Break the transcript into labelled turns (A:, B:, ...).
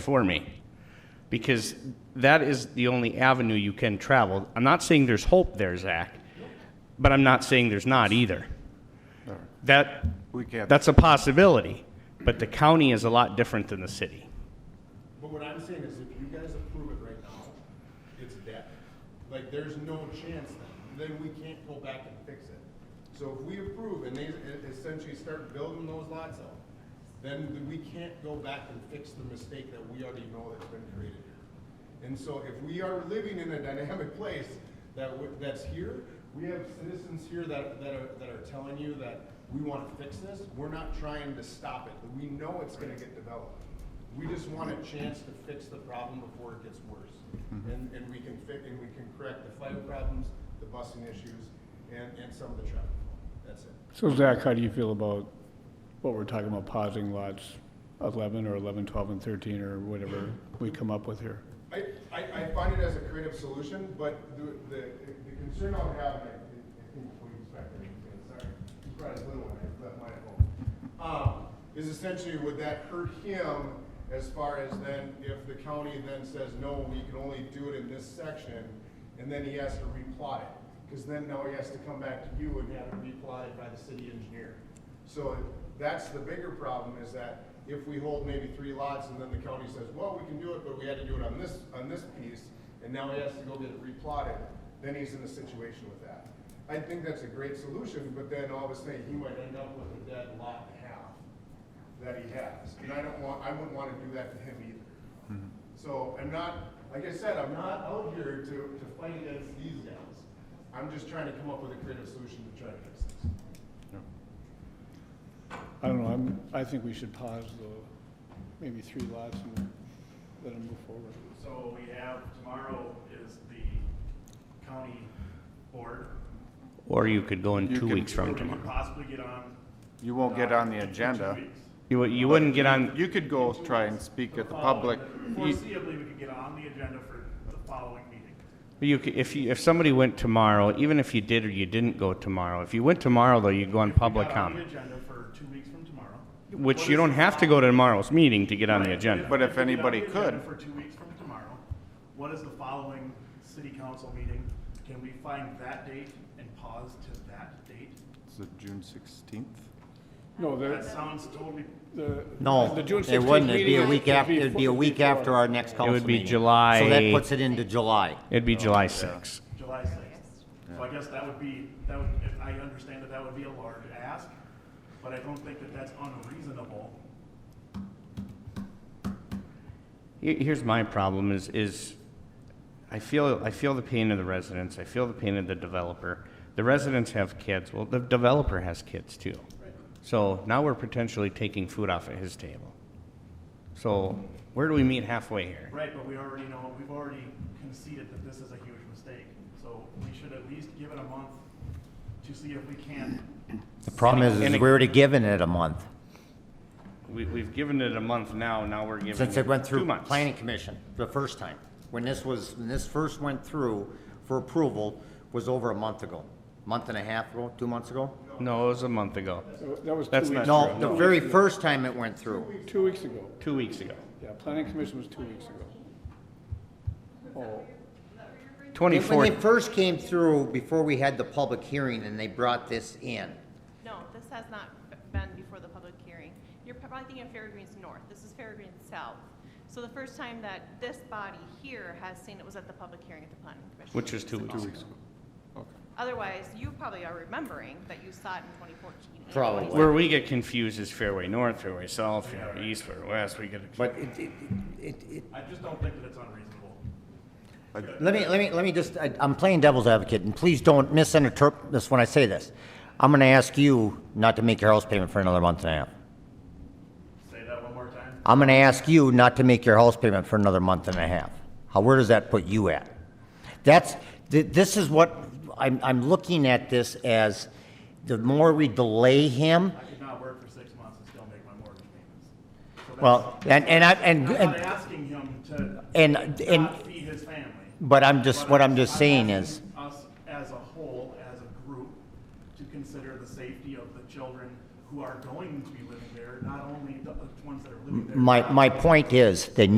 A: for me because that is the only avenue you can travel. I'm not saying there's hope there, Zach, but I'm not saying there's not either. That,
B: We can't-
A: that's a possibility, but the county is a lot different than the city.
C: But what I'm saying is if you guys approve it right now, it's dead. Like, there's no chance then, then we can't go back and fix it. So if we approve and they e- essentially start building those lots out, then we can't go back and fix the mistake that we already know that's been created here. And so if we are living in a dynamic place that, w- that's here, we have citizens here that, that are, that are telling you that we wanna fix this, we're not trying to stop it, we know it's gonna get developed. We just want a chance to fix the problem before it gets worse. And, and we can fit, and we can correct the fire problems, the busing issues, and, and some of the traffic. That's it.
D: So Zach, how do you feel about what we're talking about pausing lots 11 or 11, 12, and 13, or whatever we come up with here?
C: I, I, I find it as a creative solution, but the, the, the concern I would have, and I I think before you start, I can say, sorry, you brought his little one, I left mine at home. Um, is essentially, would that hurt him as far as then, if the county then says, no, we can only do it in this section, and then he has to replot it? Because then now he has to come back to you and have it replotted by the city engineer. So that's the bigger problem is that if we hold maybe three lots and then the county says, well, we can do it, but we had to do it on this, on this piece, and now he has to go get it replotted, then he's in a situation with that. I think that's a great solution, but then all of a sudden, he might end up with a dead lot and a half that he has. And I don't want, I wouldn't want to do that to him either. So I'm not, like I said, I'm not out here to, to fight against these guys. I'm just trying to come up with a creative solution to try to fix this.
D: I don't know, I'm, I think we should pause the, maybe three lots and let them move forward.
E: So we have, tomorrow is the county board.
A: Or you could go in
B: You
A: two
B: can-
A: weeks from
E: We could
A: tomorrow.
E: Possibly get on. uh,
B: You won't get on the agenda.
A: You, wou- you wouldn't get on,
B: You could go try and speak at the public. e- You-
E: Uh, Foreseeably, we could get on the agenda for the following meeting.
A: you, c- if you, if somebody went tomorrow, even if you did or you didn't go tomorrow, if you went tomorrow though, you'd go on
E: If we
A: public
E: got on the
A: comment,
E: agenda for two weeks from tomorrow.
A: which you don't have to go to tomorrow's meeting to get on the agenda.
B: But if
E: we get on
B: anybody
E: the agenda
B: could.
E: For two weeks from tomorrow, what is the following city council meeting? Can we find that date and pause to that date?
B: Is it June sixteenth?
D: No,
E: That
D: the,
E: sounds totally,
D: the.
F: No,
D: the June
F: it
D: 16th
F: wouldn't, it'd be
D: meeting
F: a
D: is-
F: week
D: it'd
F: after,
D: be
F: it'd be
D: fo-
F: a week
D: before.
F: after our next council meeting.
A: would be
F: So
A: July-
F: that puts it into July.
A: It'd be July sixth.
E: July sixth. So I guess that would be, that would, if I understand that that would be a large ask, but I don't think that that's unreasonable.
A: Here- Here's my problem is, is I feel, I feel the pain of the residents, I feel the pain of the developer. The residents have kids, well, the developer has kids too. So now we're potentially taking food off at his table. So where do we meet halfway here?
E: Right, but we already know, we've already conceded that this is a huge mistake. So we should at least give it a month to see if we can.
F: The problem is,
A: And
F: is
A: it-
F: we're already given it a month,
A: We, we've given it a month now, now we're giving
F: since it went
A: it two
F: through
A: months.
F: planning commission the first time. When this was, when this first went through for approval was over a month ago, month and a half ago, two months ago?
A: No, it was a month ago,
D: That was two
A: That's not
D: weeks.
F: No,
D: ago.
F: the very first time it went through.
D: Two weeks ago.
A: two weeks ago.
D: Yeah, planning commission was two weeks ago. Oh,
F: When they
A: Twenty-fourth,
F: first came through, before we had the public hearing and they brought this in,
G: No, this has not been before the public hearing. You're probably thinking of Fairgreens North, this is Fairgreens South. So the first time that this body here has seen it was at the public hearing at the planning commission.
A: which was two weeks ago.
G: Otherwise, you probably are remembering that you saw it in 2014. and
F: Probably.
G: 2016.
A: Where we get confused is Fairway North, Fairway South, Fairway East, Fairway West, we get
F: but it, it, it, it,
E: I just don't think that it's unreasonable.
F: Let me, let me, let me just, I- I'm playing devil's advocate, and please don't misinterpret this when I say this. I'm gonna ask you not to make your house payment for another month and a half.
E: Say that one more time.
F: I'm gonna ask you not to make your house payment for another month and a half. How, where does that put you at? That's, th- this is what, I'm, I'm looking at this as, the more we delay him,
E: I could not work for six months and still make my mortgage payments. So that's-
F: well, and, and I, and,
E: I'm not
F: and,
E: asking him to
F: and, and,
E: not feed his family.
F: but I'm just,
E: But
F: what I'm just saying is,
E: asking Us as a whole, as a group, to consider the safety of the children who are going to be living there, not only the the ones that are living there.
F: my,
E: now.
F: my point is, that